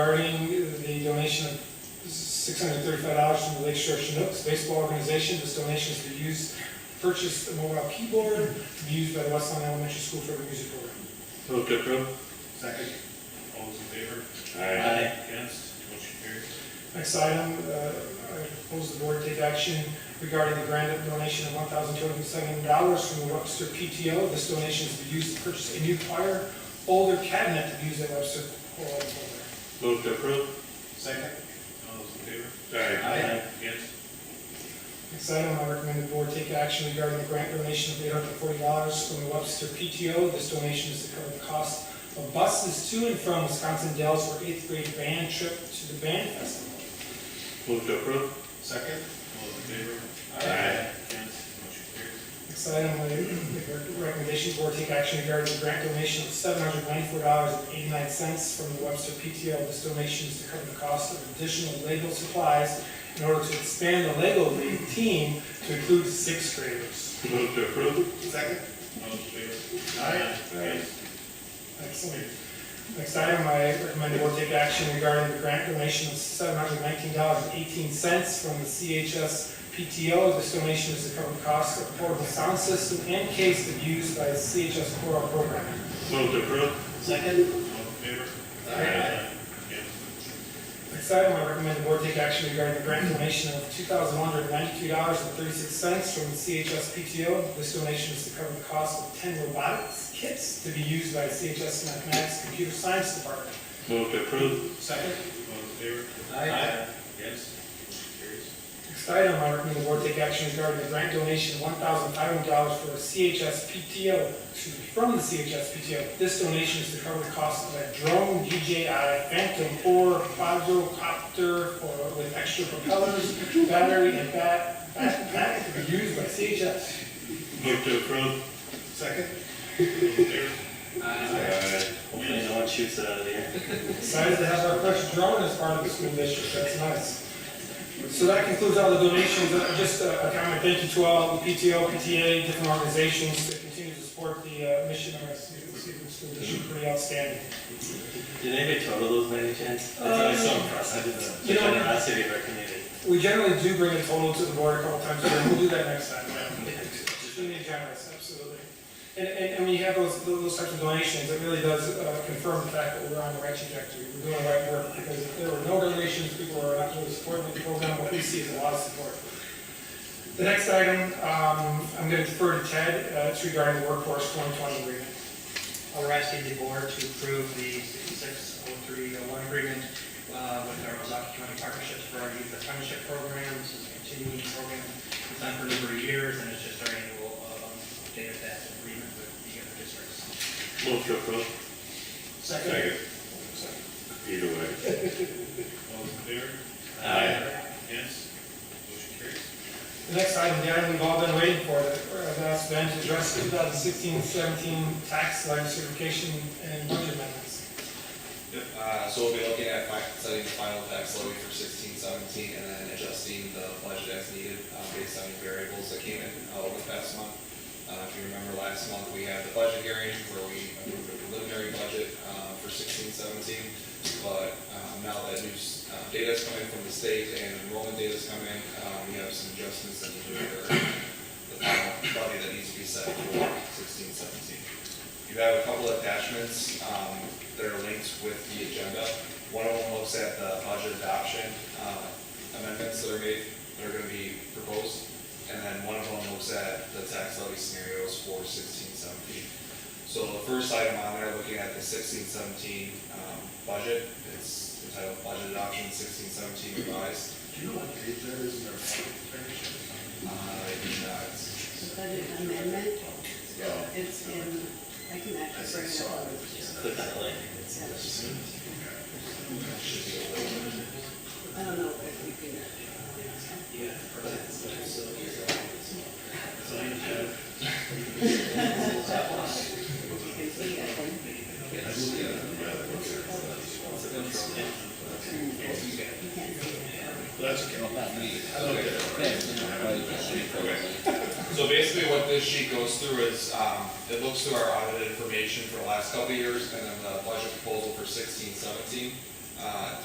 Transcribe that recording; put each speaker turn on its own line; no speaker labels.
Regarding the donation of $635 from the Lake Shore Chinooks Baseball Organization, this donation is to use, purchase a mobile keyboard to be used by the Westland Elementary School for the music program.
Move to approve.
Second.
All those in favor?
Aye.
Against? Motion carries.
Next item, uh, I propose the board take action regarding the grant donation of $1,207 from the Webster PTO. This donation is to be used to purchase a new choir folder cabinet to be used at Webster Choral Folder.
Move to approve.
Second.
All those in favor?
Aye.
Against?
Next item, I recommend the board take action regarding the grant donation of eight hundred forty dollars from the Webster PTO. This donation is to cover the cost of buses to and from Wisconsin Dells for eighth grade band trip to the band festival.
Move to approve.
Second.
All those in favor?
Aye.
Against? Motion carries.
Next item, I make a recommendation, the board take action regarding the grant donation of seven hundred ninety-four dollars and eighty-nine cents from the Webster PTO. This donation is to cover the cost of additional Lego supplies in order to expand the Lego League team to include sixth graders.
Move to approve.
Second.
All those in favor?
Aye.
Against?
Excellent. Next item, I recommend the board take action regarding the grant donation of seven hundred nineteen dollars and eighteen cents from the CHS PTO. This donation is to cover the cost of portable sound system and case to be used by the CHS Coral Program.
Move to approve.
All
Second.
those in favor?
Aye.
Against?
Next item, I recommend the board take action regarding the grant donation of two thousand one hundred ninety-two dollars and thirty-six cents from the CHS PTO. This donation is to cover the cost of ten robotics kits to be used by the CHS Mathematics Computer Science Department.
Move to approve.
Second.
All those in favor?
Aye.
Against? Motion carries.
Next item, I recommend the board take action regarding the grant donation of one thousand five hundred dollars for a CHS PTO, excuse me, from the CHS PTO. This donation is to cover the cost of a drone DJI Phantom four quadrocopter for- with extra propellers, battery, and bat, bat, bat to be used by CHS.
Move to approve.
Second.
All those in favor?
Aye.
Hopefully
no one shoots it out of the air.
Excited to have our first drone as part of the school district, that's nice. So that concludes all the donations, Uh, just a a comment, thank you to all the PTO, PTA, different organizations that continue to support the uh, mission of our student- student school district, pretty outstanding.
Did anybody total those by any chance? That's always so impressive, the
Um, You know-
generosity of our community.
We generally do bring a total to the board a couple times, a year. we'll do that next time. Extremely generous, absolutely. And, and, and when you have those, those types of donations, it really does uh, confirm the fact that we're on the right trajectory, we're doing the right work, because if there were no donations, people are not really supporting the program, what we see is a lot of support. The next item, um, I'm gonna defer to Ted, uh, it's regarding the workforce twenty twenty agreement.
We're asking the board to approve the 660301 agreement uh, with our Ozaukee County Partnerships for our youth apprenticeship program. This is a continuing program. It's on for a number of years, and it's just our annual um, update of that agreement with the other districts.
Move to approve.
Second.
Either way.
All those in favor?
Aye.
Against? Motion carries.
The next item, the item we've all been waiting for, the that's been to address 2016-17 tax legislation and budget amendments.
Yep, uh, so we'll be looking at fi- setting the final tax levy for sixteen seventeen and then adjusting the budget as needed, uh, based on the variables that came in uh, over the past month. Uh, if you remember last month, we had the budget hearing where we approved a preliminary budget, uh, for sixteen seventeen. But, um, now that new, s- uh, data's come in from the state and enrollment data's come in, um, we have some adjustments that need to occur. The final budget that needs to be set for sixteen seventeen. You have a couple of attachments um, that are linked with the agenda. One of them looks at the budget adoption uh, amendments that are made, that are going to be proposed. And then one of them looks at the tax levy scenarios for sixteen seventeen. So the first item on there, looking at the sixteen seventeen um, budget, it's entitled Budget Adoption sixteen seventeen revised.
Do you know what page that is in our partnership?
Uh, and, uh, it's-
The budget amendment, it's in, I can
I
actually bring it
saw
up.
it.
Click on the link.
I don't know if we can. uh, You can see, I think. You can't see it.
So basically what this sheet goes through is, um, it looks through our audited information for the last couple of years and then the budget proposal for sixteen seventeen. uh,